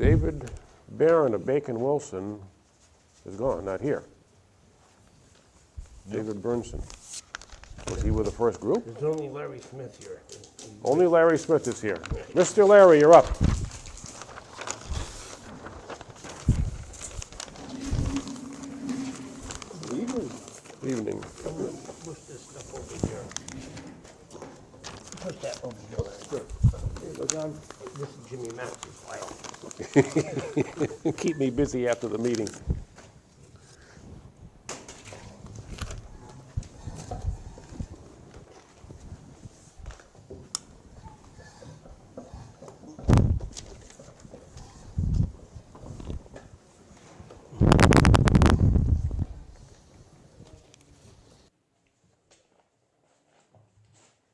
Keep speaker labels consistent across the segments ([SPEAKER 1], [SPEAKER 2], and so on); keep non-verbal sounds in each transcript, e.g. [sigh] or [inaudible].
[SPEAKER 1] David Barron of Bacon Wilson is gone, not here. David Burnson. Was he with the first group?
[SPEAKER 2] There's only Larry Smith here.
[SPEAKER 1] Only Larry Smith is here. Mr. Larry, you're up. Evening.
[SPEAKER 2] Push this stuff over here. Push that over here, Larry. This is Jimmy Max's file.
[SPEAKER 1] Keep me busy after the meeting.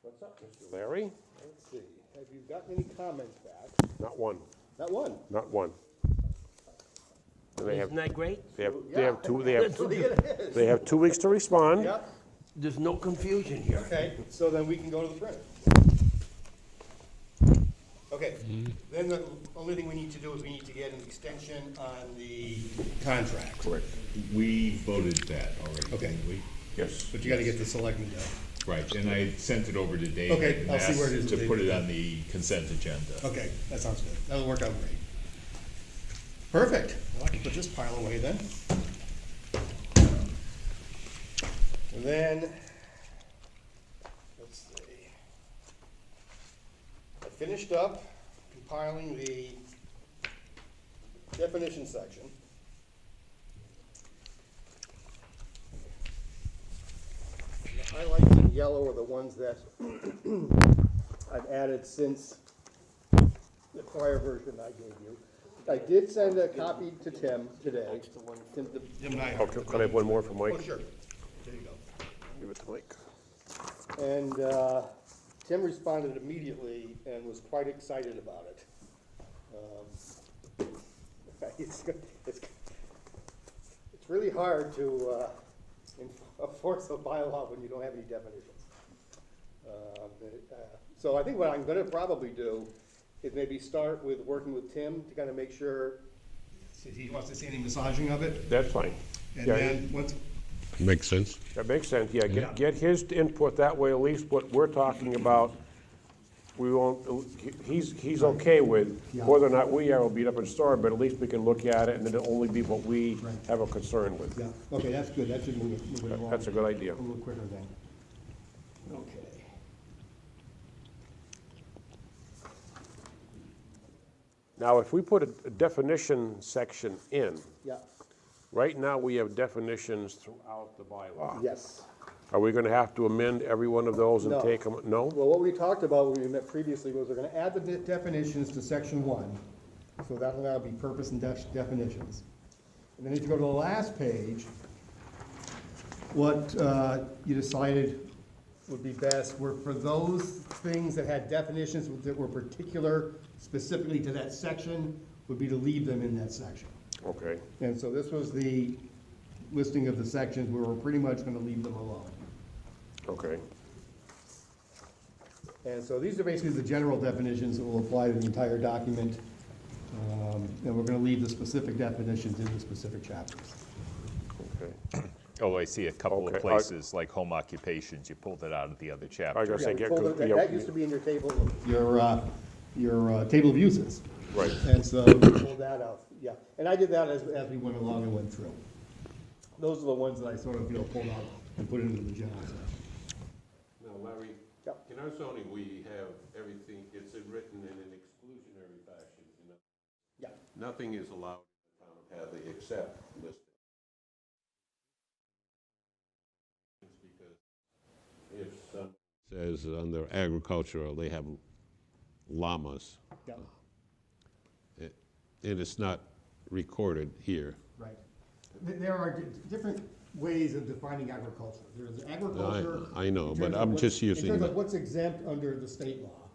[SPEAKER 3] What's up, Mr.
[SPEAKER 1] Larry?
[SPEAKER 3] Let's see, have you gotten any comments back?
[SPEAKER 1] Not one,
[SPEAKER 3] Not one.
[SPEAKER 1] not one. And They have,
[SPEAKER 2] Isn't that great?
[SPEAKER 1] they have, they have two, they have,
[SPEAKER 3] Actually, it is.
[SPEAKER 1] they have two weeks to respond.
[SPEAKER 3] Yep,
[SPEAKER 2] There's no confusion here.
[SPEAKER 3] okay, so then we can go to the printer. Okay, then the only thing we need to do is we need to get an extension on the contract. Correct.
[SPEAKER 4] We voted that already,
[SPEAKER 3] Okay.
[SPEAKER 4] didn't we?
[SPEAKER 1] Yes.
[SPEAKER 3] But you gotta get the selectmen done.
[SPEAKER 4] Right, and I sent it over to David.
[SPEAKER 3] Okay,
[SPEAKER 4] and
[SPEAKER 3] I'll see where it
[SPEAKER 4] asked
[SPEAKER 3] is,
[SPEAKER 4] To put
[SPEAKER 3] David.
[SPEAKER 4] it on the consent agenda.
[SPEAKER 3] Okay, that sounds good, that'll work out great. Perfect, well, I can put this pile away then. And then, let's see. I finished up compiling the definition section. The highlights in yellow are the ones that [clears throat] I've added since the prior version I gave you. I did send a copy to Tim today.
[SPEAKER 1] Oh,
[SPEAKER 3] Tim
[SPEAKER 1] can can I have one more for Mike?
[SPEAKER 3] Oh, sure. There you go.
[SPEAKER 1] Give it to Mike.
[SPEAKER 3] And uh, Tim responded immediately and was quite excited about it. Um, [laughs] It's, go- it's, it's really hard to uh, [laughs] enforce a bylaw when you don't have any definitions. Um, it, uh, So I think what I'm gonna probably do is maybe start with working with Tim to kind of make sure. He wants to see any massaging of it,
[SPEAKER 1] That's fine. Yeah,
[SPEAKER 3] once.
[SPEAKER 5] Makes sense.
[SPEAKER 1] That makes sense, yeah, get, get his input, that way at least what we're talking about, we won't, he's, he's okay with, whether or not we are beat up and starved, but at least we can look at it, and it'll only be what we have a concern with.
[SPEAKER 3] Yeah, okay, that's good, that should move it, move it along.
[SPEAKER 1] That's a good idea.
[SPEAKER 3] A little quicker then. Okay.
[SPEAKER 1] Now, if we put a definition section in,
[SPEAKER 3] Yeah,
[SPEAKER 1] right now, we have definitions throughout the bylaw.
[SPEAKER 3] yes.
[SPEAKER 1] Are we gonna have to amend every one of those and
[SPEAKER 3] No.
[SPEAKER 1] take them, no?
[SPEAKER 3] Well, what we talked about when we met previously was we're gonna add the de- definitions to section one. So that'll now be purpose and def- definitions. And then if you go to the last page, what uh, you decided would be best were for those things that had definitions that were particular specifically to that section, would be to leave them in that section.
[SPEAKER 1] Okay,
[SPEAKER 3] And so this was the listing of the sections where we're pretty much gonna leave them alone.
[SPEAKER 1] okay,
[SPEAKER 3] And so these are basically the general definitions that will apply to the entire document. Um, And we're gonna leave the specific definitions in the specific chapters.
[SPEAKER 1] okay.
[SPEAKER 4] Oh, I see a couple
[SPEAKER 1] Okay, I-
[SPEAKER 4] of places, like home occupations, you pulled it out of the other
[SPEAKER 1] I
[SPEAKER 4] chapter.
[SPEAKER 1] gotta say, get,
[SPEAKER 3] That
[SPEAKER 1] yeah,
[SPEAKER 3] that used to be in your table. Your, uh, your uh, table of uses.
[SPEAKER 1] right.
[SPEAKER 3] And so we pulled that out, yeah. And I did that as, as we went along and went through. Those are the ones that I sort of, you know, pulled out and put into the general.
[SPEAKER 6] Now, Larry,
[SPEAKER 3] Yep.
[SPEAKER 6] in our zoning, we have everything, it's in written in an exclusionary fashion. you know.
[SPEAKER 3] Yeah.
[SPEAKER 6] Nothing is allowed in the town of Hadley except listed. It's Because if some
[SPEAKER 5] Says under agricultural, they have llamas,
[SPEAKER 3] Yeah,
[SPEAKER 5] and it's not recorded here.
[SPEAKER 3] right. There- There are di- different ways of defining agriculture. There's
[SPEAKER 5] I,
[SPEAKER 3] agriculture.
[SPEAKER 5] I know,
[SPEAKER 3] in
[SPEAKER 5] but
[SPEAKER 3] terms of
[SPEAKER 5] I'm
[SPEAKER 3] what-
[SPEAKER 5] just
[SPEAKER 3] In
[SPEAKER 5] using,
[SPEAKER 3] terms of
[SPEAKER 5] the-
[SPEAKER 3] what's exempt under the state law.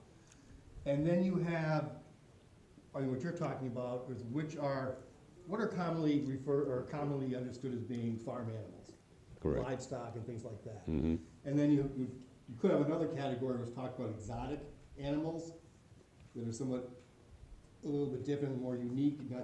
[SPEAKER 3] And then you have, I mean, what you're talking about is which are, what are commonly referred, or commonly understood as being farm animals?
[SPEAKER 5] Correct. Mm-hmm.
[SPEAKER 3] Livestock and things like that. And then you, you you could have another category which talked about exotic animals that are somewhat a little bit different, more unique, not